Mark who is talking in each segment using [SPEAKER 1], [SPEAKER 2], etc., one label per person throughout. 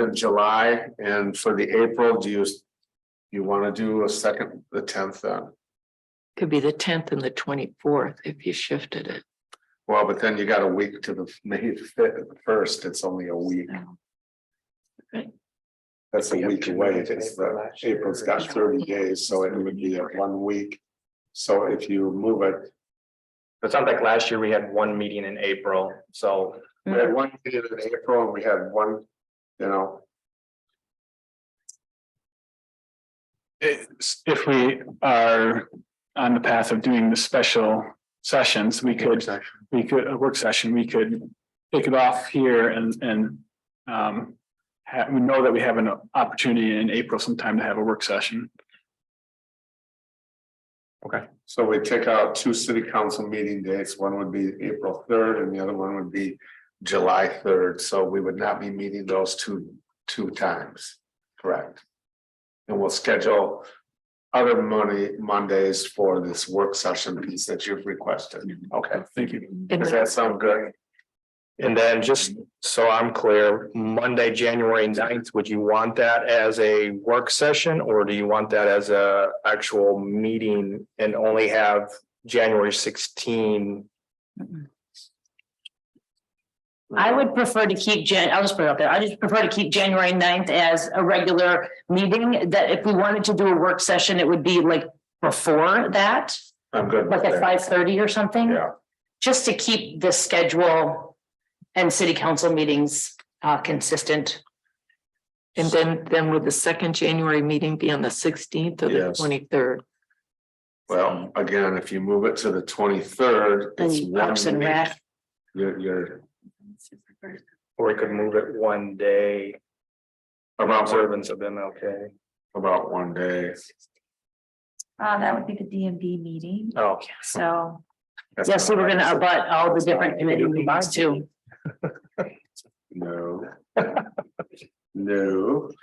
[SPEAKER 1] of July and for the April, do you? You want to do a second, the tenth then?
[SPEAKER 2] Could be the tenth and the twenty-fourth if you shifted it.
[SPEAKER 1] Well, but then you got a week to the May fifth, first, it's only a week.
[SPEAKER 2] so.
[SPEAKER 1] That's a week away. It's the, April's got thirty days, so it would be a one week. So if you move it,
[SPEAKER 3] It sounds like last year we had one meeting in April, so
[SPEAKER 1] we had one meeting in April and we had one, you know,
[SPEAKER 4] it's- if we are on the path of doing the special sessions, we could, we could, a work session, we could kick it off here and, and um, ha we know that we have an opportunity in April sometime to have a work session.
[SPEAKER 1] so we take out two city council meeting dates. One would be April third and the other one would be July third. So we would not be meeting those two, two times. Correct. And we'll schedule other money Mondays for this work session piece that you've requested. Okay,
[SPEAKER 4] Thank you.
[SPEAKER 2] And
[SPEAKER 1] does that sound good?
[SPEAKER 3] and then just so I'm clear, Monday, January 9th, would you want that as a work session? Or do you want that as a actual meeting and only have January sixteen?
[SPEAKER 5] I would prefer to keep Jan, I'll just put it out there. I just prefer to keep January 9th as a regular meeting, that if we wanted to do a work session, it would be like before that,
[SPEAKER 1] I'm good. with
[SPEAKER 5] like at
[SPEAKER 1] that.
[SPEAKER 5] five thirty or something.
[SPEAKER 1] Yeah.
[SPEAKER 5] Just to keep the schedule and city council meetings uh consistent.
[SPEAKER 2] and then, then would the second January meeting be on the sixteenth or the
[SPEAKER 1] Yes.
[SPEAKER 2] twenty-third?
[SPEAKER 1] Well, again, if you move it to the twenty-third, it's
[SPEAKER 5] And Parks
[SPEAKER 1] one
[SPEAKER 5] and
[SPEAKER 1] week.
[SPEAKER 5] Rec,
[SPEAKER 1] You're, you're
[SPEAKER 3] Or we could move it one day,
[SPEAKER 1] about,
[SPEAKER 3] observance of MLK.
[SPEAKER 1] about one day.
[SPEAKER 6] Uh, that would be the DMV meeting,
[SPEAKER 3] Oh,
[SPEAKER 6] so.
[SPEAKER 1] That's
[SPEAKER 5] yeah, so we're
[SPEAKER 1] not-
[SPEAKER 5] gonna abut all the different committee meetings too.
[SPEAKER 1] No. No.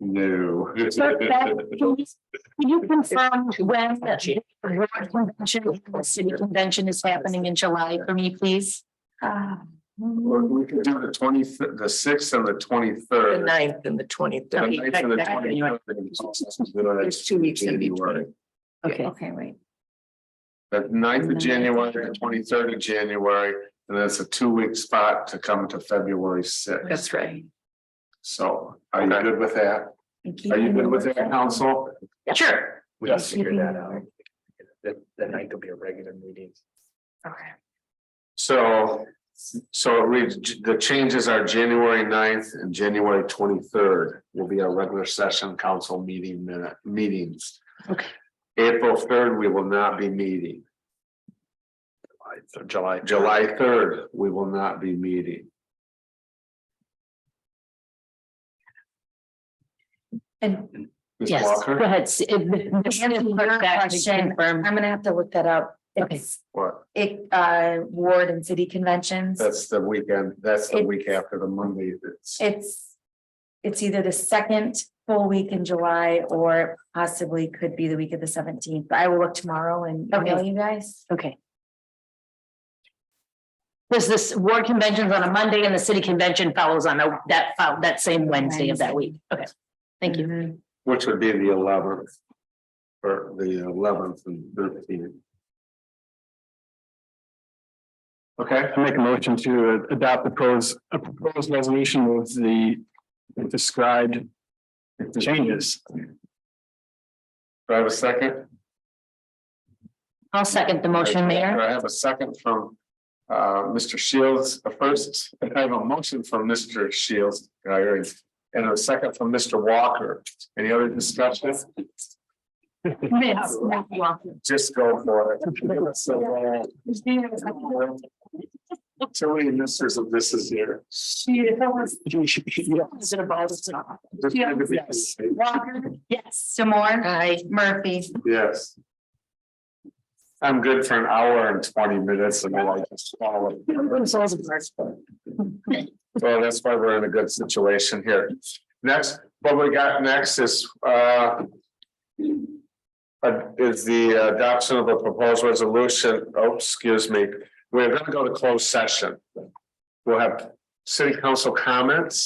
[SPEAKER 1] No.
[SPEAKER 5] So that, can you- can you confirm when the board convention, the city convention is happening in July for me, please?
[SPEAKER 6] uh,
[SPEAKER 1] Well, We could do the twenty, the sixth and the
[SPEAKER 2] The
[SPEAKER 1] twenty-third.
[SPEAKER 2] ninth and the twenty-third.
[SPEAKER 1] There's
[SPEAKER 2] There's two weeks in between.
[SPEAKER 5] Okay,
[SPEAKER 6] Okay, wait,
[SPEAKER 1] The 9th of January, the twenty-third of January, and that's a two-week spot to come to February sixth.
[SPEAKER 2] That's right.
[SPEAKER 1] So are you good with that?
[SPEAKER 6] and keep
[SPEAKER 1] Are you good
[SPEAKER 6] it-
[SPEAKER 1] with that, council?
[SPEAKER 5] sure.
[SPEAKER 3] We can
[SPEAKER 4] Yes.
[SPEAKER 3] figure that out. The, the ninth will be a regular meeting.
[SPEAKER 6] Okay.
[SPEAKER 1] So, so it reads, the changes are January 9th and January twenty-third will be our regular session council meeting minute, meetings.
[SPEAKER 5] Okay.
[SPEAKER 1] April third, we will not be meeting.
[SPEAKER 3] So July.
[SPEAKER 1] July third, we will not be meeting.
[SPEAKER 6] And
[SPEAKER 1] Ms.
[SPEAKER 5] Yes, go
[SPEAKER 1] Walker,
[SPEAKER 5] ahead. S- if- if-
[SPEAKER 6] And
[SPEAKER 5] if-
[SPEAKER 6] another
[SPEAKER 5] back to
[SPEAKER 6] question.
[SPEAKER 5] confirm.
[SPEAKER 6] I'm gonna have to look that up.
[SPEAKER 5] Okay.
[SPEAKER 6] It's,
[SPEAKER 1] what?
[SPEAKER 6] it, uh, ward and city conventions.
[SPEAKER 1] That's the weekend, that's the week
[SPEAKER 6] It's-
[SPEAKER 1] after the Monday, that's,
[SPEAKER 6] It's, it's either the second full week in July or possibly could be the week of the seventeenth. But I will look tomorrow and email
[SPEAKER 5] Okay.
[SPEAKER 6] you guys.
[SPEAKER 5] Okay. There's this ward conventions on a Monday and the city convention follows on a- that, fol- that same Wednesday of that week. Okay, thank you.
[SPEAKER 1] which would be the eleventh. Or the eleventh and thirteenth. Okay,
[SPEAKER 4] I make a motion to adopt the proposed, a proposed resolution with the described changes.
[SPEAKER 1] do I have a second?
[SPEAKER 5] I'll second the motion,
[SPEAKER 1] Do
[SPEAKER 5] Mayor.
[SPEAKER 1] I have a second from uh Mr. Shields Uh, first? I have a motion from Mr. Shields. I already- And a second from Mr. Walker. Any other discussion?
[SPEAKER 5] Yes, welcome.
[SPEAKER 1] Just go for it. So, uh, Too many misters of this is here.
[SPEAKER 5] Is it a ball? Is it not?
[SPEAKER 1] Yes.
[SPEAKER 6] Walker? Yes. Demore?
[SPEAKER 5] Aye.
[SPEAKER 6] Murphy?
[SPEAKER 1] Yes. I'm good for an hour and twenty minutes and I like to swallow. it. Well, that's why we're in a good situation here. Next, what we got next is, uh. uh, is the adoption of a proposed resolution, oh, excuse me, we're gonna go to closed session. We'll have City council comments?